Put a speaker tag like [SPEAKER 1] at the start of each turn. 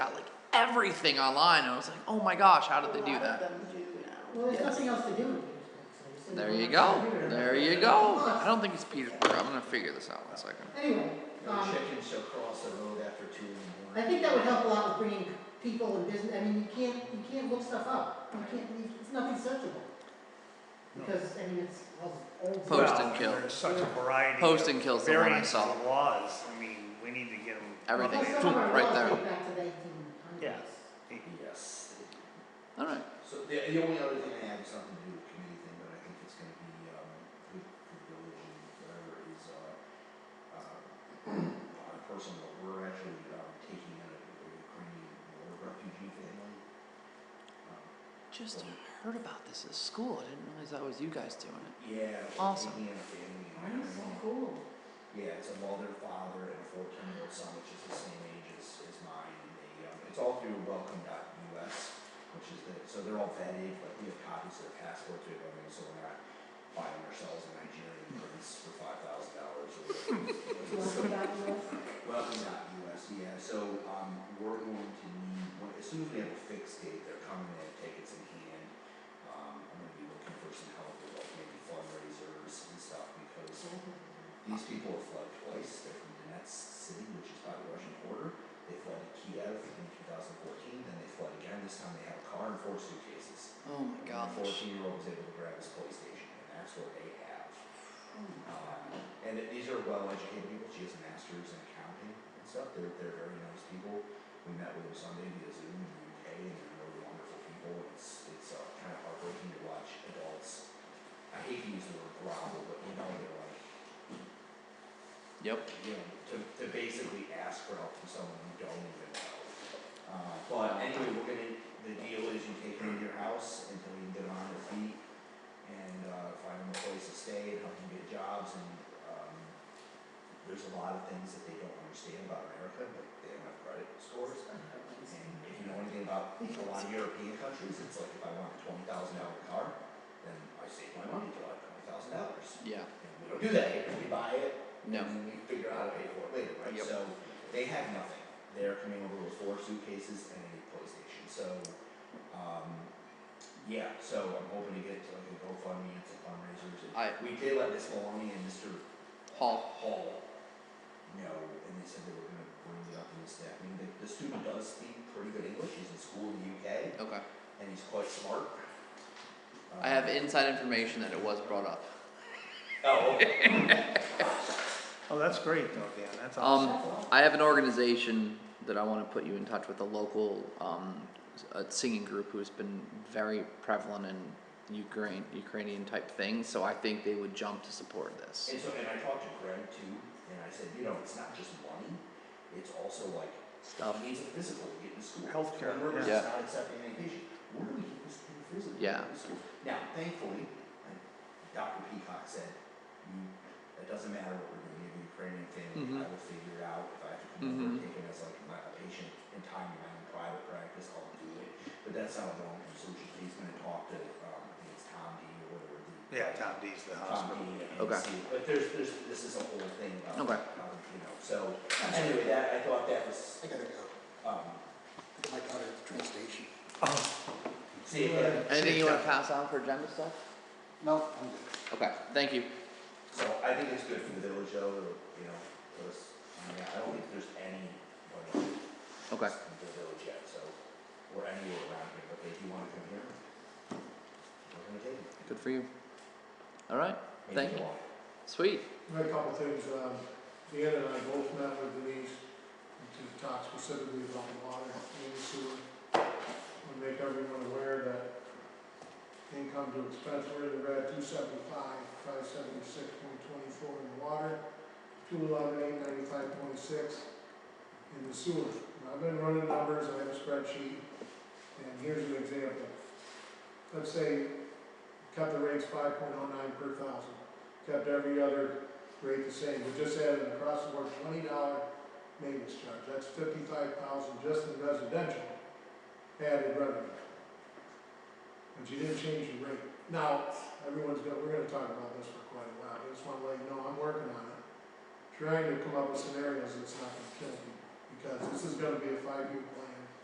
[SPEAKER 1] everything online. And I was like, oh my gosh, how did they do that?
[SPEAKER 2] Well, there's
[SPEAKER 1] Yes.
[SPEAKER 2] nothing else to do.
[SPEAKER 1] There you go. There you go. I don't think it's Petersburg. I'm gonna figure this out in a second.
[SPEAKER 2] Anyway,
[SPEAKER 3] No
[SPEAKER 2] um,
[SPEAKER 3] chickens shall cross the road after two in the
[SPEAKER 2] I
[SPEAKER 3] morning.
[SPEAKER 2] think that would help a lot with bringing people and business, I mean, you can't, you can't look stuff up, you can't, you- it's nothing searchable. Because, I mean, it's, well, old.
[SPEAKER 1] Post
[SPEAKER 2] stuff.
[SPEAKER 1] and
[SPEAKER 4] Well,
[SPEAKER 1] kill.
[SPEAKER 4] There's such a variety.
[SPEAKER 1] Post and
[SPEAKER 4] of
[SPEAKER 1] kill's the one I
[SPEAKER 4] variants of
[SPEAKER 1] saw.
[SPEAKER 4] Laws, I mean, we need to get them.
[SPEAKER 1] Everything.
[SPEAKER 2] Well,
[SPEAKER 1] Boom,
[SPEAKER 2] some of our
[SPEAKER 1] right
[SPEAKER 2] laws
[SPEAKER 1] there.
[SPEAKER 2] date back to the 1800s.
[SPEAKER 4] Yeah.
[SPEAKER 3] Yes.
[SPEAKER 1] All right.
[SPEAKER 3] So the, the only other thing I have is something to do with committee thing, but I think it's gonna be, um, with the village and whatever is, uh, uh, on a personal note, we're actually, um, taking in a a Ukrainian war refugee family. Um,
[SPEAKER 1] Just heard about this at school. I didn't realize that was you guys doing it.
[SPEAKER 3] Yeah. we're
[SPEAKER 1] Awesome.
[SPEAKER 3] Taking in a family. in
[SPEAKER 2] Mine is so
[SPEAKER 3] Ukraine.
[SPEAKER 2] cool.
[SPEAKER 3] Yeah, it's a mother, father, and a fourteen-year-old son, which is the same age as, as mine, and they, um, it's all through welcome.us, which is the, so they're all vetted, like, we have copies of their passports, we have everything, so we're not buying ourselves a Nigerian prince for five thousand dollars or whatever.
[SPEAKER 2] Love that list.
[SPEAKER 3] Welcome.us, yeah, so, um, we're going to need, when- as soon as we have a fixed date, they're coming, they have tickets in hand. Um, I'm gonna be looking for some help with like maybe fundraisers and stuff, because these people have fled twice. They're from Donetsk City, which is by the Russian border. They fled to Kiev in 2014. Then they fled again. This time they had a car and four suitcases.
[SPEAKER 1] Oh my
[SPEAKER 3] And the
[SPEAKER 1] gosh.
[SPEAKER 3] 14 year old was able to grab his PlayStation, and that's what they have. Um, and th- these are well educated people. She has a master's in accounting and stuff. They're, they're very nice people. We met with them Sunday via Zoom in the UK, and they're really wonderful people. It's, it's uh, kind of heartbreaking to watch adults. I hate to use the word grovel, but you know, they're like,
[SPEAKER 1] Yep.
[SPEAKER 3] you know, to, to basically ask for help from someone you don't even know. Uh, but anyway, we're gonna, the deal is you take them to your house until you can get on their feet and, uh, find them a place to stay and help them get jobs and, um, there's a lot of things that they don't understand about America, but they don't have credit scores. And if you know anything about a lot of European countries, it's like if I want a twenty thousand dollar car, then I save my money till I have twenty thousand dollars.
[SPEAKER 1] Yeah.
[SPEAKER 3] And we don't do that here, we buy it,
[SPEAKER 1] No.
[SPEAKER 3] and we figure out how to pay for it later, right?
[SPEAKER 1] Yep.
[SPEAKER 3] So they have nothing. They're coming over with four suitcases and a PlayStation. So, um, yeah, so I'm hoping to get to like a GoFundMe and some fundraisers. And
[SPEAKER 1] I-
[SPEAKER 3] we did let Miss Maloney and Mr.
[SPEAKER 1] Hall.
[SPEAKER 3] Hall know, and they said they were gonna bring it up in the staff meeting. The, the student does speak pretty good English. He's in school in the UK,
[SPEAKER 1] Okay.
[SPEAKER 3] and he's quite smart.
[SPEAKER 1] I have
[SPEAKER 3] Um,
[SPEAKER 1] inside information that it was brought up.
[SPEAKER 3] Oh, okay.
[SPEAKER 4] Oh, that's great though, Dan, that's awesome.
[SPEAKER 1] Um, I have an organization that I want to put you in touch with a local um, s- a singing group who's been very prevalent in Ukraine Ukrainian type things. So I think they would jump to support this.
[SPEAKER 3] And so, and I talked to Greg too, and I said, you know, it's not just money, it's also like,
[SPEAKER 1] Stuff.
[SPEAKER 3] he needs a physical to get into school.
[SPEAKER 4] Healthcare,
[SPEAKER 3] Remember, it's
[SPEAKER 1] yeah.
[SPEAKER 3] not accepting medication. Where do we get this kid a physical? to
[SPEAKER 1] Yeah.
[SPEAKER 3] get into school? Now, thankfully, and Dr. Peacock said, you, it doesn't matter what we're gonna give the Ukrainian family, I
[SPEAKER 1] Mm-hmm.
[SPEAKER 3] will figure it out. If I have to come over and
[SPEAKER 1] Mhm.
[SPEAKER 3] take him as like my a patient in time in my own private practice, I'll do it. But that's not a long-term solution. He's gonna talk to, um, I think it's Tom D or whatever. the-
[SPEAKER 4] Yeah, Tom D's the hospital.
[SPEAKER 1] Okay.
[SPEAKER 3] but there's, there's, this is a whole thing about,
[SPEAKER 1] Okay.
[SPEAKER 3] about, you know, so, anyway, that, I thought that was,
[SPEAKER 5] I gotta go.
[SPEAKER 3] um,
[SPEAKER 5] My daughter at the train station.
[SPEAKER 3] see, yeah,
[SPEAKER 1] Anything you want to pass on for agenda stuff?
[SPEAKER 5] No, I'm good.
[SPEAKER 1] Okay. Thank you.
[SPEAKER 3] so I think it's good for the village though, to, you know, for us, I mean, I don't think there's any, one of
[SPEAKER 1] Okay.
[SPEAKER 3] us in the village yet, so, or anywhere around here, but if you wanna come here, we're gonna take it.
[SPEAKER 1] Good for you. All right.
[SPEAKER 3] Maybe
[SPEAKER 1] Thank you.
[SPEAKER 3] walk.
[SPEAKER 1] Sweet.
[SPEAKER 6] I had a couple of things, um, Deanna and I both met with Denise to talk specifically about water and sewer. And make everyone aware that income to expense, we're in the red two seventy-five, five seventy-six point twenty-four in the water, two eleven, eight ninety-five point six in the sewer. And I've been running numbers, I have a spreadsheet, and here's an example. Let's say, cut the rates five point oh nine per thousand, kept every other rate the same, we just added an across the board twenty dollar maintenance charge, that's fifty-five thousand just in residential added revenue. But you didn't change the rate. Now, everyone's gonna, we're gonna talk about this for quite a while, I just wanna let you know, I'm working on it. Trying to come up with scenarios that's not gonna kill people, because this is gonna be a five-year plan.